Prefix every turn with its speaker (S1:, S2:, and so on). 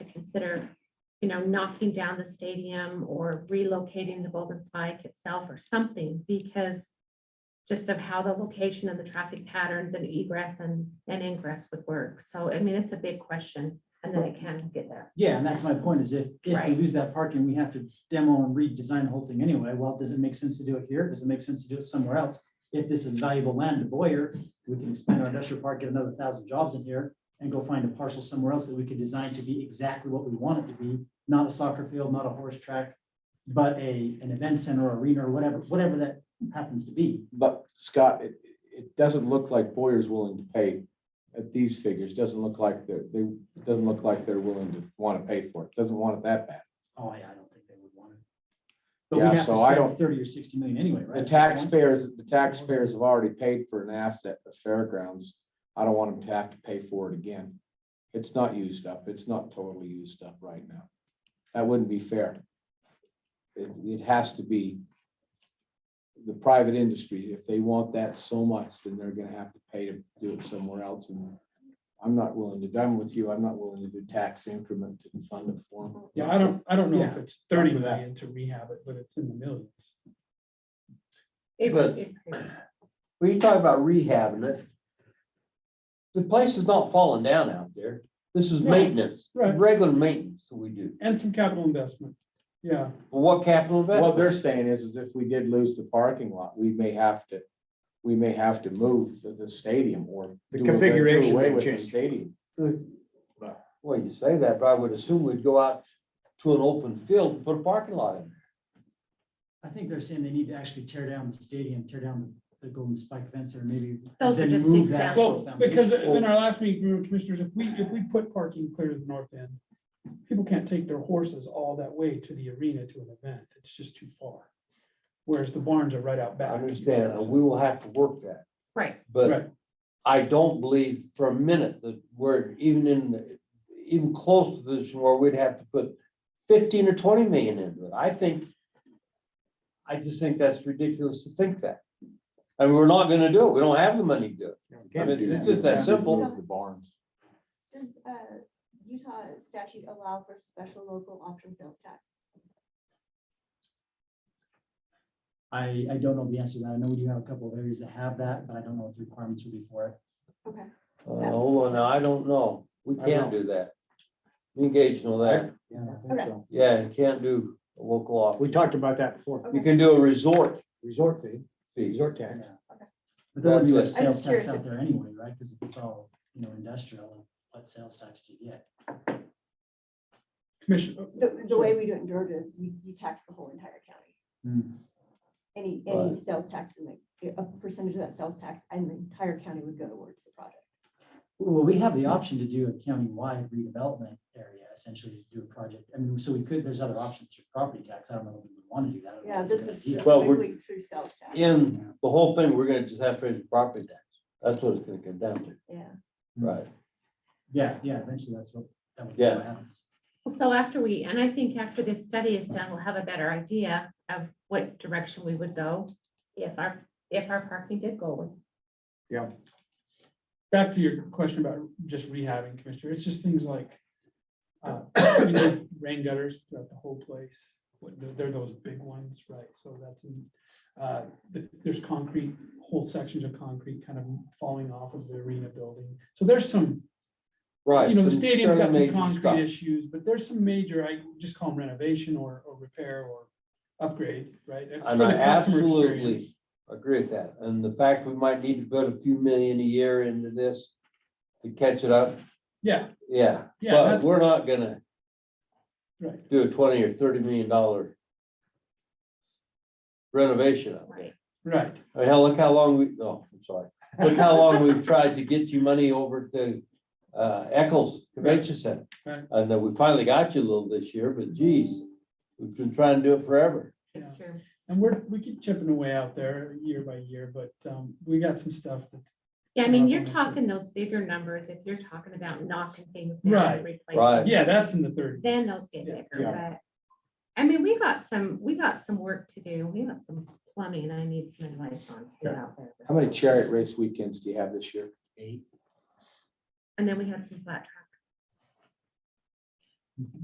S1: consider, you know, knocking down the stadium or relocating the Golden Spike itself or something because just of how the location and the traffic patterns and egress and, and ingress would work. So, I mean, it's a big question and then it can get there.
S2: Yeah, and that's my point is if, if we
S1: Right.
S2: lose that parking, we have to demo and redesign the whole thing anyway. Well, does it make sense to do it here? Does it make sense to do it somewhere else? If this is valuable land to Boyer, we can expand our industrial park, get another thousand jobs in here and go find a parcel somewhere else that we could design to be exactly what we want it to be. Not a soccer field, not a horse track, but a, an event center, arena, or whatever, whatever that happens to be.
S3: But Scott, it, it doesn't look like Boyer's willing to pay at these figures. Doesn't look like they're, they, it doesn't look like they're willing to want to pay for it. Doesn't want it that bad.
S2: Oh, yeah, I don't think they would want it. But we
S3: Yeah,
S2: have to
S3: so I
S2: spend
S3: don't-
S2: thirty or sixty million anyway, right?
S3: The
S2: at this point?
S3: taxpayers, the taxpayers have already paid for an asset, the fairgrounds. I don't want them to have to pay for it again. It's not used up. It's not totally used up right now. That wouldn't be fair. It, it has to be the private industry. If they want that so much, then they're gonna have to pay to do it somewhere else. And I'm not willing to, I'm with you. I'm not willing to do tax increment to fund a form.
S4: Yeah, I don't, I don't know if
S2: Yeah,
S4: it's thirty
S2: for that.
S4: million to rehab it, but it's in the millions.
S1: It's-
S5: But-
S1: it's-
S5: When you talk about rehabbing it, the place is not falling down out there. This is
S4: Right.
S5: maintenance,
S4: Right.
S5: regular maintenance that we do.
S4: And some capital investment. Yeah,
S5: Well, What capital
S3: What they're
S5: investment?
S3: saying is, is if we did lose the parking lot, we may have to, we may have to move the- the stadium or.
S6: The
S3: do away- do
S6: configuration
S3: away
S6: may
S3: with the
S6: change.
S3: Stadium.
S5: Well, you say that, but I would assume we'd go out to an open field and put a parking lot in.
S2: I think they're saying they need to actually tear down the stadium, tear down the Golden Spike Event Center, maybe.
S1: Those
S2: and
S1: are
S2: then
S1: just
S2: move that
S1: examples.
S2: actual
S4: well, because
S2: foundation.
S4: in our last meeting, we were commissioners, if we, if we put parking clear to the north end, people can't take their horses all that way to the arena to an event. It's just too far. Whereas the barns are right out
S5: I
S4: back.
S5: understand, and we will have to work that,
S1: Right,
S4: Right.
S5: but I don't believe for a minute that we're even in, the- even close to this where we'd have to put fifteen or twenty million into it. I think, I just think that's ridiculous to think that. And we're not gonna do it. We don't have the money to do it. I mean, it's just that simple.
S3: Move The barns.
S7: Does uh, Utah statute allow for special local option sales tax?
S2: I, I don't know the answer to that. I know we do have a couple of areas that have that, but I don't know what the requirements would be for it.
S7: Okay,
S5: Uh, hold on, now, I don't know. We
S2: I
S5: can't do that. Engage on that.
S7: Okay.
S2: Yeah.
S5: Yeah, you can't do a local office.
S6: We talked about that before,
S5: You can do a resort
S6: resort fee,
S5: fee.
S6: resort tax.
S2: But there would be
S5: That's it.
S2: much sales
S7: just
S2: tax
S7: curious
S2: out
S7: if-
S2: there anyway, right? Because it's all, you know, industrial, what sales tax do you get?
S4: Commission,
S7: the, the way we do it in Georgia is you, you tax the whole entire county. Any, any
S5: Right.
S7: sales tax, and like a percentage of that sales tax and the entire county would go towards the project.
S2: Well, we have the option to do a county-wide redevelopment area, essentially to do a project. I mean, so we could, there's other options through property tax. I don't know if we would want to do that. I don't know
S7: Yeah,
S2: if it's a
S7: this
S2: good
S7: is
S2: idea. Hmm.
S5: Well, we're-
S7: specifically through sales tax.
S5: In the whole thing, we're gonna just have to raise property tax. That's what it's gonna come down
S4: Mm.
S5: to.
S7: Yeah.
S5: Right.
S2: Yeah, yeah, eventually that's what, that would be
S5: Yeah.
S2: what happens.
S1: Well, So after we, and I think after this study is done, we'll have a better idea of what direction we would go if our, if our parking did go away.
S4: back to your question about just rehabbing, Commissioner, it's just things like uh, you know, rain gutters throughout the whole place. What- They're they're those big ones, right? So that's, in- uh, th- there's concrete, whole sections of concrete kind of falling off of the arena building. So there's some,
S5: Right.
S4: you know, the
S5: some
S4: stadium's got
S5: fairly
S4: some
S5: major stuff.
S4: concrete issues, but there's some major, I just call them renovation or, or repair or upgrade, right? for
S5: And
S4: the
S5: I
S4: customer experience.
S5: absolutely agree with that. And the fact we might need to put a few million a year into this to catch it up,
S4: Yeah,
S5: yeah.
S4: Yeah,
S5: But
S4: that's-
S5: we're not gonna
S4: right.
S5: do a twenty or thirty million dollar renovation up there.
S1: Right.
S4: Right.
S5: I mean, Hell, look how long we, no, I'm sorry. Look how long we've tried to get you money over to uh, Eccles Convention Center.
S4: Right.
S5: And then we finally got you a little this year, but geez, we've been trying to do it forever.
S1: It's true.
S4: And we're, we keep chipping away out there year by year, but um, we got some stuff that's.
S1: Yeah, I mean, you're
S4: Probably so.
S1: talking those bigger numbers, if you're talking about knocking things down and
S5: Right.
S1: replacing,
S4: Yeah, that's in the third.
S1: then those get
S4: Yeah,
S1: bigger, but. I mean, we got some, we got some work to do. We got some plumbing I need some advice on too
S4: Okay.
S1: out there.
S3: How many chariot race weekends do you have this year?
S1: And then we had some flat